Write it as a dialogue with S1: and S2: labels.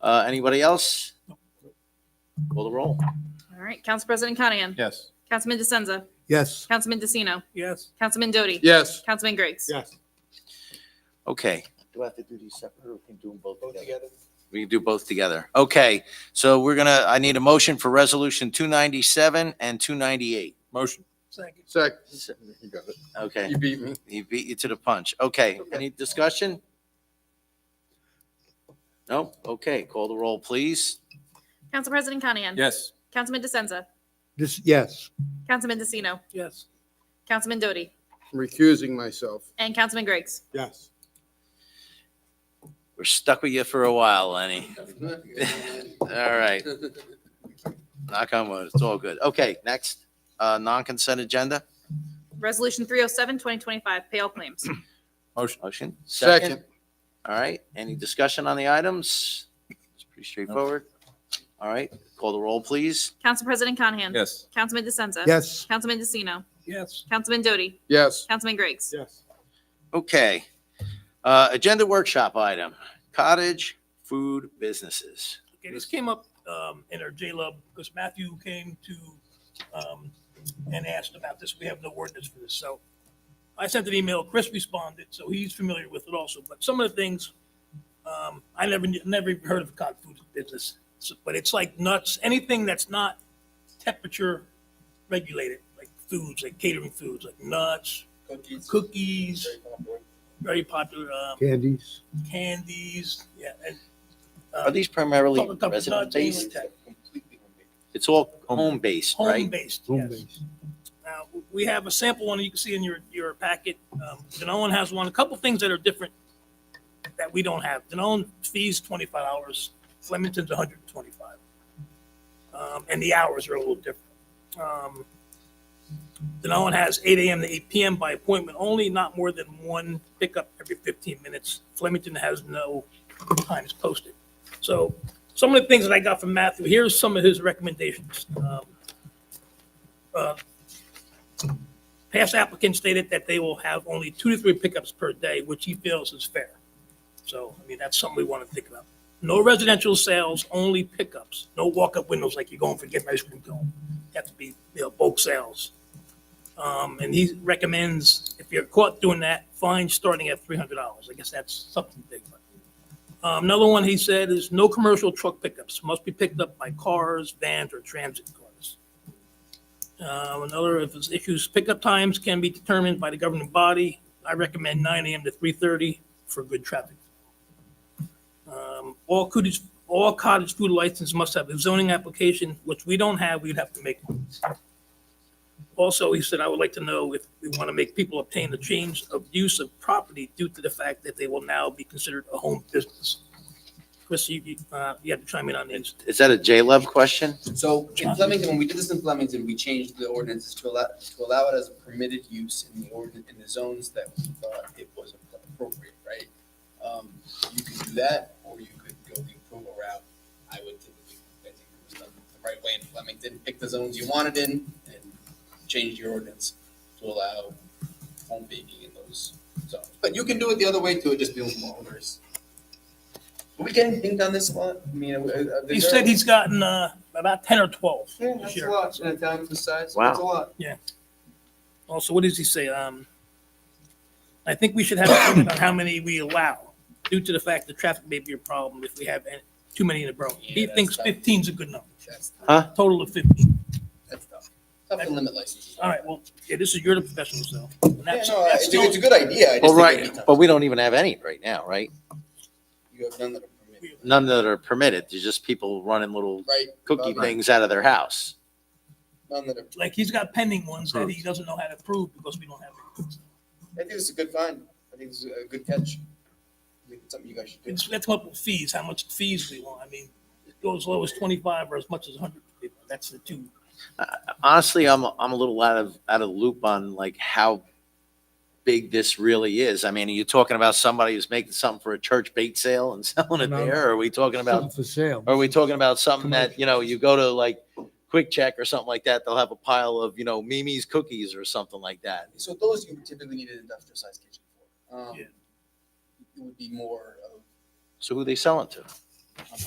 S1: Uh, anybody else? Call the roll.
S2: All right, Council President Conahan.
S3: Yes.
S2: Councilman DeSenza.
S4: Yes.
S2: Councilman DeCino.
S4: Yes.
S2: Councilman Doty.
S3: Yes.
S2: Councilman Griggs.
S4: Yes.
S1: Okay. Do I have to do these separate or can do them both together? We can do both together. Okay, so we're gonna, I need a motion for resolution two ninety-seven and two ninety-eight.
S3: Motion.
S4: Second.
S3: Second. You got it.
S1: Okay,
S3: You beat me.
S1: he beat you to the punch. Okay, any discussion? No? Okay, call the roll, please.
S2: Council President Conahan.
S3: Yes.
S2: Councilman DeSenza.
S4: This, yes.
S2: Councilman DeCino.
S4: Yes.
S2: Councilman Doty.
S3: I'm recusing myself.
S2: And Councilman Griggs.
S4: Yes.
S1: We're stuck with you for a while, Lenny. All right. Knock on wood, it's all good. Okay, next, uh, non-consent agenda.
S2: Resolution 307, 2025, pay all claims.
S3: Motion.
S1: Motion?
S3: Second.
S1: All right, any discussion on the items? It's pretty straightforward. All right, call the roll, please.
S2: Council President Conahan.
S3: Yes.
S2: Councilman DeSenza.
S4: Yes.
S2: Councilman DeCino.
S4: Yes.
S2: Councilman Doty.
S3: Yes.
S2: Councilman Griggs.
S4: Yes.
S1: Okay. Uh, agenda workshop item, cottage food businesses.
S5: Okay, this came up um, in our J-Lub because Matthew came to um, and asked about this. We have no ordinance for this. So I sent an email. Chris responded, so he's familiar with it also. But some of the things um, I never knew- never even heard of cod food business, So- but it's like nuts. Anything that's not temperature regulated, like foods, like catering foods, like nuts,
S3: Cookies.
S5: cookies, very popular um,
S4: Candies.
S5: candies. Yeah, and
S1: Are these primarily resident-based? It's all home-based,
S5: Home
S1: right?
S5: based,
S4: Home
S5: yes.
S4: base.
S5: Now, we have a sample one that you can see in your, your packet. Um, Danone has one, a couple things that are different that we don't have. Danone fees twenty-five hours, Flemington's hundred and twenty-five. Um, and the hours are a little different. Um, Danone has eight AM to eight PM by appointment only, not more than one pickup every fifteen minutes. Flemington has no times posted. So some of the things that I got from Matthew, here's some of his recommendations. Um, uh, Past applicants stated that they will have only two to three pickups per day, which he feels is fair. So, I mean, that's something we want to think about. No residential sales, only pickups. No walk-up windows like you're going for getting ice cream cone. Have to be, you know, bulk sales. Um, and he recommends if you're caught doing that, fine starting at three hundred dollars. I guess that's something big. but- Um, another one he said is no commercial truck pickups. Must be picked up by cars, vans, or transit cars. Uh, Another of his issues, pickup times can be determined by the governing body. I recommend nine AM to three thirty for good traffic. Um, All cottage, all cottage food license must have a zoning application, which we don't have, we'd have to make. one. Also, he said, I would like to know if we want to make people obtain a change of use of property due to the fact that they will now be considered a home business. Chris, you, you, uh, you have to chime in on these.
S1: Is that a J-Love question?
S6: So in Flemington, when we did this in Flemington, we changed the ordinances to allow, to allow it as a permitted use in the ordinance, in the zones that we thought it was appropriate, right? Um, you could do that, or you could go the approval route. I would typically, I think it was done the right way in Flemington, pick the zones you wanted in and change your ordinance to allow home baking in those zones. But you can do it the other way too, it just deals with owners. Are we getting dinged on this a lot? I mean, uh, uh,
S5: He
S6: is
S5: said
S6: there-
S5: he's gotten, uh, about ten or twelve.
S6: yeah,
S5: this
S6: that's
S5: year.
S6: a lot. In a town of this size,
S1: Wow.
S6: that's a lot.
S5: Also, what does he say? Um, I think we should have a limit on how many we allow due to the fact that traffic may be a problem if we have any- too many in a borough. He
S6: Yeah, that's
S5: thinks
S6: tough.
S5: fifteen's a good number,
S6: That's
S5: total of fifteen.
S6: that's tough. Tough to limit licenses.
S5: All right, well, yeah, this is, you're the professional, so. and
S6: Yeah,
S5: that's-
S6: no, I-
S5: that's
S6: it's, a- it's a
S5: still-
S6: good idea. I just
S1: Well,
S6: think
S1: right,
S6: it'd be
S1: but
S6: tough.
S1: we don't even have any right now, right?
S6: you have none that are permitted,
S1: None that are permitted. There's just people running little
S6: right?
S1: cookie
S6: Right.
S1: things out of their house.
S6: None that are.
S5: Like, he's got pending ones that he doesn't know how to prove because we don't have. any.
S6: I think it's a good find. I think it's a good catch. I think it's something you guys should do.
S5: It's, that's up with fees, how much fees we want. I mean, it goes as low as twenty-five or as much as hundred. That's the two.
S1: honestly, I'm I'm a little out of out of the loop on like how big this really is. I mean, are you talking about somebody who's making something for a church bait sale and selling it
S4: No.
S1: there? Or are we talking about
S4: For sale.
S1: are we talking about something that you know you go to like Quick Check or something like that? They'll have a pile of you know Mimi's cookies or something like that.
S6: So those you typically need an industrial sized kitchen for. Um,
S5: Yeah.
S6: It would be more of
S1: So who they selling to?
S6: I'm not